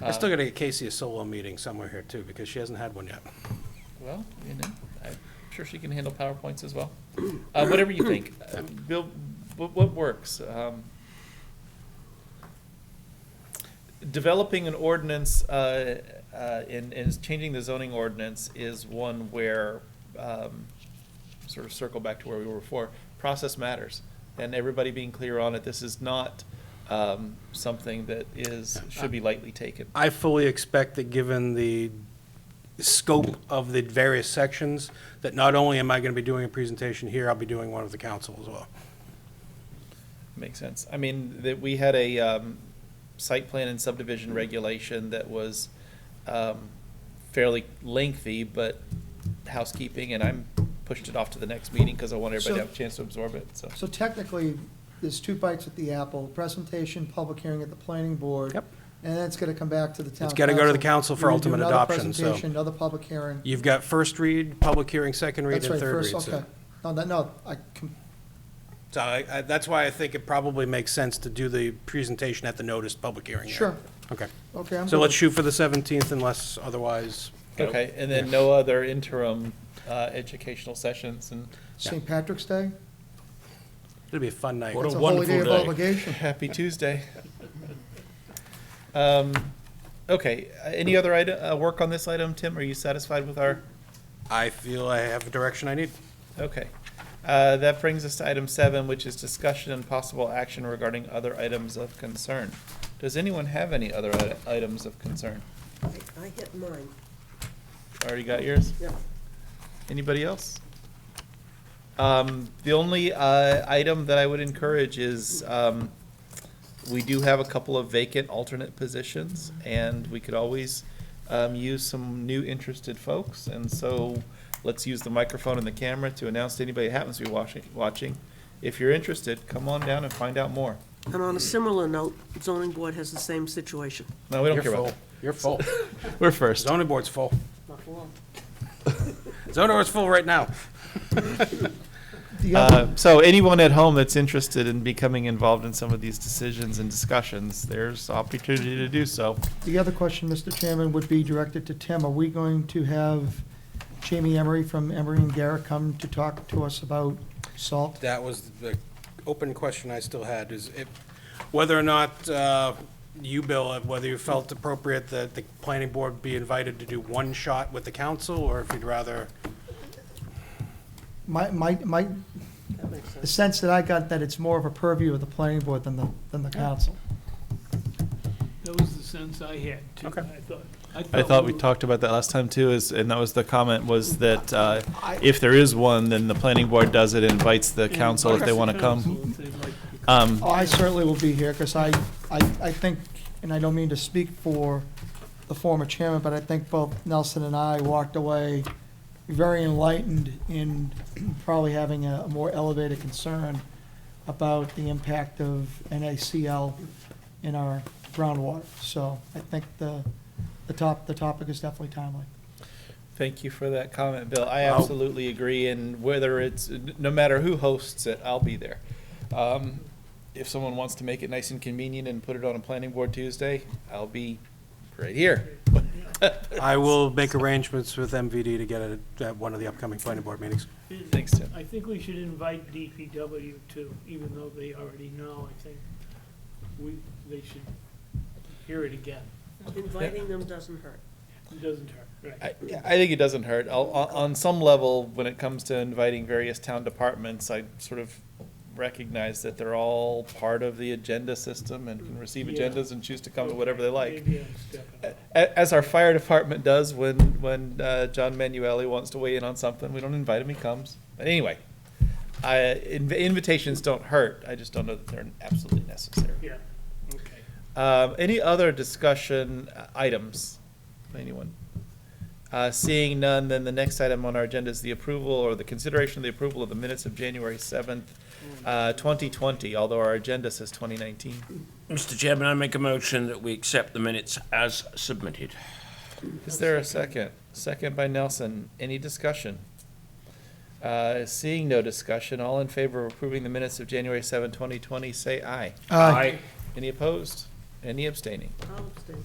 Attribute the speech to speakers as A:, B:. A: I still gotta get Casey a solo meeting somewhere here too, because she hasn't had one yet.
B: Well, you know, I'm sure she can handle PowerPoints as well. Uh, whatever you think, Uh, Bill, what, what works? Um, Developing an ordinance, uh, uh, and, and changing the zoning ordinance is one where, um, sort of circle back to where we were before, process matters. And everybody being clear on it, this is not, um, something that is, should be lightly taken.
A: I fully expect that, given the scope of the various sections, that not only am I gonna be doing a presentation here, I'll be doing one of the council as well.
B: Makes sense. I mean, that we had a um, site plan and subdivision regulation that was um, fairly lengthy, but housekeeping, and I'm pushed it off to the next meeting because I want everybody to
C: So-
B: have a chance to absorb it, so.
C: So technically, there's two bites at the apple, presentation, public hearing at the planning board.
A: Yep.
C: And then it's gonna come back to the town council.
A: gotta go to the council for
C: You're gonna do
A: ultimate
C: another
A: adoption, so-
C: presentation, Another public hearing.
A: You've got first read, public hearing, second read,
C: That's
A: and
C: right,
A: third read.
C: first,
A: so-
C: okay. No, that, no, I, com-
A: So I, I, that's why I think it probably makes sense to do the presentation at the noticed public hearing. here.
C: sure,
A: Okay,
C: okay, I'm
A: so let's
C: good.
A: shoot for the seventeenth unless otherwise.
B: Okay, and then no other interim uh, educational sessions and
C: St. Patrick's Day,
A: It'll be a fun night.
D: What
C: it's
D: a
C: a holy day
D: wonderful
C: of
D: day.
C: obligation.
B: happy Tuesday. Um, Okay, uh, any other ide- uh, work on this item, Tim? Are you satisfied with our?
A: I feel I have the direction I need.
B: Okay. Uh, That brings us to item seven, which is discussion and possible action regarding other items of concern. Does anyone have any other i- items of concern?
E: I- I hit mine,
B: Already got yours?
E: yeah.
B: Anybody else? Um, The only uh, item that I would encourage is, um, we do have a couple of vacant alternate positions, and we could always um, use some new interested folks. And so let's use the microphone and the camera to announce to anybody that happens to be watching, watching. If you're interested, come on down and find out more.
E: And on a similar note, zoning board has the same situation.
B: No, we don't
A: You're
B: care about
A: full. You're full.
B: that. We're first.
A: Zoning board's full. Zoning board's full right now.
C: The other-
B: Uh, So anyone at home that's interested in becoming involved in some of these decisions and discussions, there's opportunity to do so.
C: The other question, Mr. Chairman, would be directed to Tim. Are we going to have Jamie Emery from Emery and Garrett come to talk to us about salt?
A: That was the open question I still had, is if, whether or not uh, you, Bill, uh, whether you felt appropriate that the planning board be invited to do one shot with the council, or if you'd rather,
C: My, my, my,
E: That makes sense.
C: the sense that I got that it's more of a purview of the planning board than the, than the council.
F: That was the sense I had, too.
A: Okay.
F: I thought-
B: I thought we
F: were-
B: talked about that last time too, is, and that was the comment was that uh, if there is one, then the planning board does it, and invites the council if they want to come.
F: Council, if they'd like to come.
B: Um,
C: Oh, I certainly will be here, because I, I, I think, and I don't mean to speak for the former chairman, but I think both Nelson and I walked away very enlightened in probably having a more elevated concern about the impact of NACL in our groundwater. So I think the, the top, the topic is definitely timely.
B: Thank you for that comment, Bill. I absolutely agree, and whether it's, no matter who hosts it, I'll be there. Um, If someone wants to make it nice and convenient and put it on a planning board Tuesday, I'll be right here.
A: I will make arrangements with MVD to get it at one of the upcoming planning board meetings.
B: Um, Thanks, Tim.
F: I think we should invite DPW too, even though they already know, I think we, they should hear it again.
E: Inviting them doesn't hurt.
F: It doesn't hurt, right?
B: I, I think it doesn't hurt. I'll, on, on some level, when it comes to inviting various town departments, I sort of recognize that they're all part of the agenda system and can receive
F: Yeah.
B: agendas and choose to come to whatever they like. Uh,
F: Maybe I'm stepping up.
B: A- As our fire department does when, when, uh, John Manueli wants to weigh in on something, we don't invite him, he comes. But anyway, I, inv- invitations don't hurt. I just don't know that they're absolutely necessary.
F: Yeah, okay.
B: Um, any other discussion uh, items? Anyone? Uh, seeing none, then the next item on our agenda is the approval or the consideration of the approval of the minutes of January seventh, uh, twenty twenty, although our agenda says twenty nineteen.
D: Mr. Chairman, I make a motion that we accept the minutes as submitted.
B: Is there a second? Second by Nelson. Any discussion? Uh, seeing no discussion, all in favor of approving the minutes of January seventh, twenty twenty, say aye. Any opposed? Any abstaining?
E: I'll abstain.